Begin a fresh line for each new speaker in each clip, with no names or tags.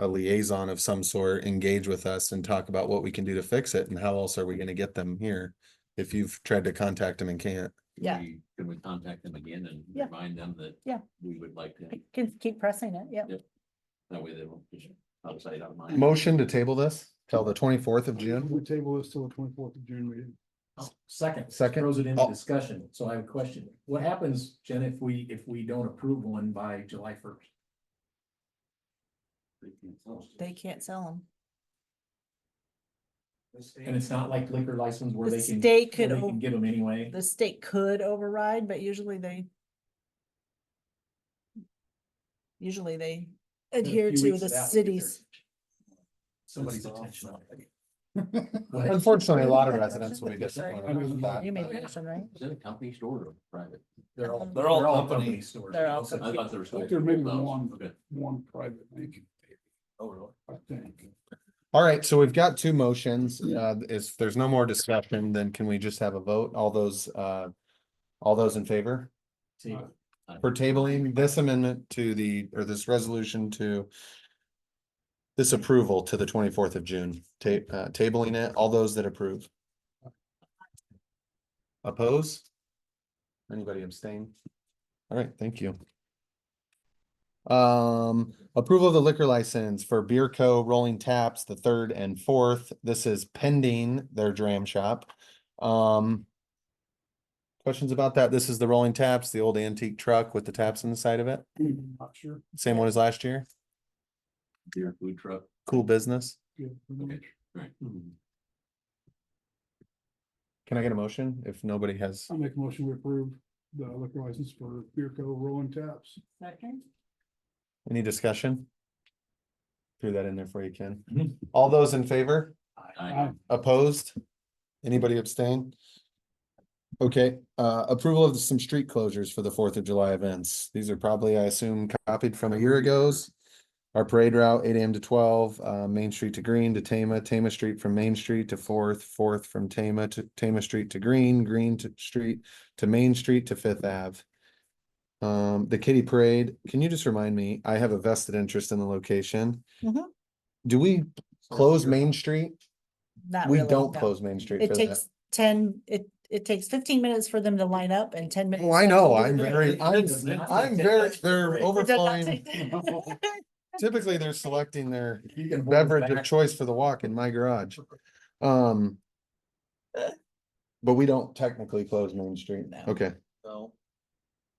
a liaison of some sort engage with us and talk about what we can do to fix it and how else are we gonna get them here? If you've tried to contact them and can't,
Can
Yeah.
we- Can we contact them again and
Yeah.
remind them that?
Yeah.
We would like to,
Keep- Keep, keep pressing it, yeah.
that way they won't push it outside our mind.
motion to table this till the twenty-fourth of June?
We table this till the twenty-fourth of June meeting.
Oh, Second.
Second.
Throws it into
Oh.
discussion, so I have a question, what happens, Jen, if we, if we don't approve one by July first?
They can't sell them.
And it's not like liquor license where
The
they can,
state
where
could,
they
o-
can give them anyway,
the state could override, but usually they usually they adhere
few
to
weeks
the
it out,
cities.
somebody's
That's
attention.
awesome.
Go ahead.
Unfortunately, a lot of residents will be disappointed with that.
You made the motion, right?
Is it a company store or private?
They're all,
Um,
they're all
company.
company stores.
They're all
So-
I thought there was.
think there may be
Oh,
one.
okay.
One private, thank you,
Oh, really?
I think.
All right, so we've got two motions. Uh, if there's no more discussion, then can we just have a vote? All those, uh, all those in favor?
See,
for tabling this amendment to the, or this resolution to this approval to the twenty-fourth of June, ta- uh, tabling it, all those that approve. Oppose? Anybody abstain? All right, thank you. Um, approval of the liquor license for Beer Co. Rolling Taps, the third and fourth. This is pending their dram shop. Um, Questions about that? This is the rolling taps, the old antique truck with the taps on the side of it.
Hmm.
Not sure.
Same one as last year.
Beer food truck.
Cool business.
Yeah.
Okay, right.
Hmm.
Can I get a motion if nobody has?
I make a motion to approve the liquor license for Beer Co. Rolling Taps.
Second.
Any discussion? Threw that in there for you, Ken.
Mhm.
All those in favor?
Um,
I,
Opposed? Anybody abstain? Okay, uh, approval of some street closures for the Fourth of July events. These are probably, I assume, copied from a year ago's. Our parade route, eight AM to twelve, uh, Main Street to Green to Tama, Tama Street from Main Street to Fourth, Fourth from Tama to Tama Street to Green, Green to Street to Main Street to Fifth Ave. Um, the kitty parade, can you just remind me, I have a vested interest in the location.
Mhm.
Do we close Main Street?
Not
We
really,
don't
no.
close Main Street
It
for that.
takes ten, it, it takes fifteen minutes for them to line up and ten minutes.
Well, Oh, I know, I'm
It
very, I'm,
Does not take
I'm
that
very,
much
they're
break.
does not
overflowing.
take that-
Typically, they're selecting their
You can hold it
beverage of
back.
choice for the walk in my garage. Um. But we don't technically close Main Street.
No.
Okay,
So,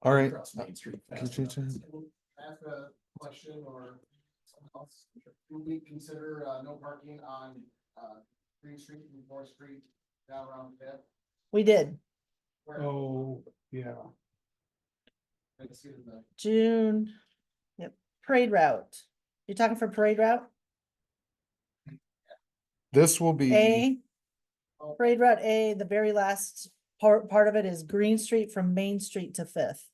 all right.
across Main Street fast
Could you
enough.
ask a question or someone else, would we consider, uh, no parking on, uh, Green Street and Fourth Street down around Fifth?
We did,
Where,
Oh, yeah.
let's see the,
June, yep, parade route. You're talking for parade route
This will be,
A? Parade route A, the very last part, part of it is Green Street from Main Street to Fifth.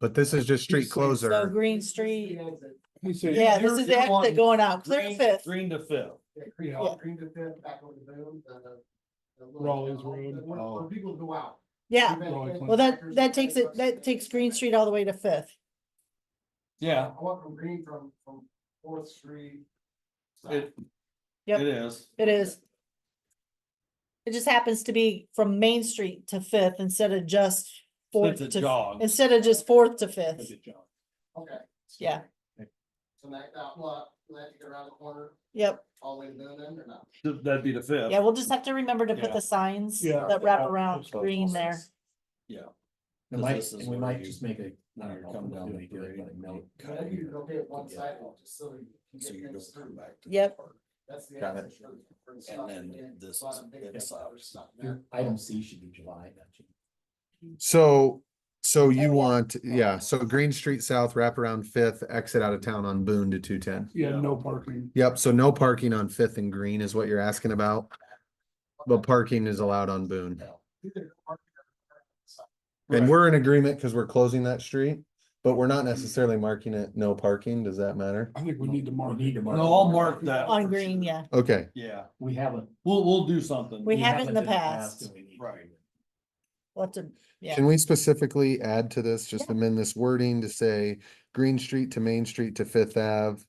but this is just street
So
closer.
Green Street,
He said.
yeah, this is the exit going out, clear to Fifth.
Green to fill.
yeah, Green,
Yeah.
Green to Fifth, back over the boom, the. the little-
Rawlins Road.
the- Where
Oh.
where people go out.
Yeah,
Rawlins
well, that, that takes it, that takes Green Street all the way to Fifth.
I want from Green from, from Fourth Street. south.
Yep. it
is.
It is. It just happens to be from Main Street to Fifth instead of just fourth to,
jog.
instead of just fourth to Fifth.
Okay.
Yeah.
So that, that lot, that you go around the corner,
Yep,
all the way to Boone then, or not?
That'd be the fifth.
yeah, we'll just have to remember to put
Yeah.
the signs
Yeah.
that wrap
Yeah.
around green there.
We
'Cause
might,
this is
and we
where
might
you-
just make a, I
when
don't
you
know,
come down
do
the
it, do it,
grade,
like, no
you
cut
Maybe you
here.
go get one
Yeah.
sidewalk, just so you can
So you
get
don't
things
come
through.
back. to the
Yep.
park.
That's the.
Got it.
access road for the
And
stuff
then
get
this
a lot
is
of big
the
stuff
south.
or something there.
Your Item C should be July, not June.
So, so
yeah.
you want, yeah, so Green Street South, wrap around Fifth, exit out of town on Boone to two ten.
Yeah, no parking.
Yep, so no parking on Fifth and Green is what you're asking about, but parking is allowed on Boone.
Either park or park.
And we're in agreement because we're closing that street, but we're not necessarily marking it no parking. Does that matter?
I think we need to mark.
We need to mark.
No, I'll mark that.
On
for
green,
sure.
yeah.
Okay,
Yeah,
We haven't.
we'll, we'll do something.
We haven't in the past.
and we need to.
Right.
We'll have to, yeah.
can we specifically add to this, just amend this wording to say Green Street to Main Street to Fifth Ave?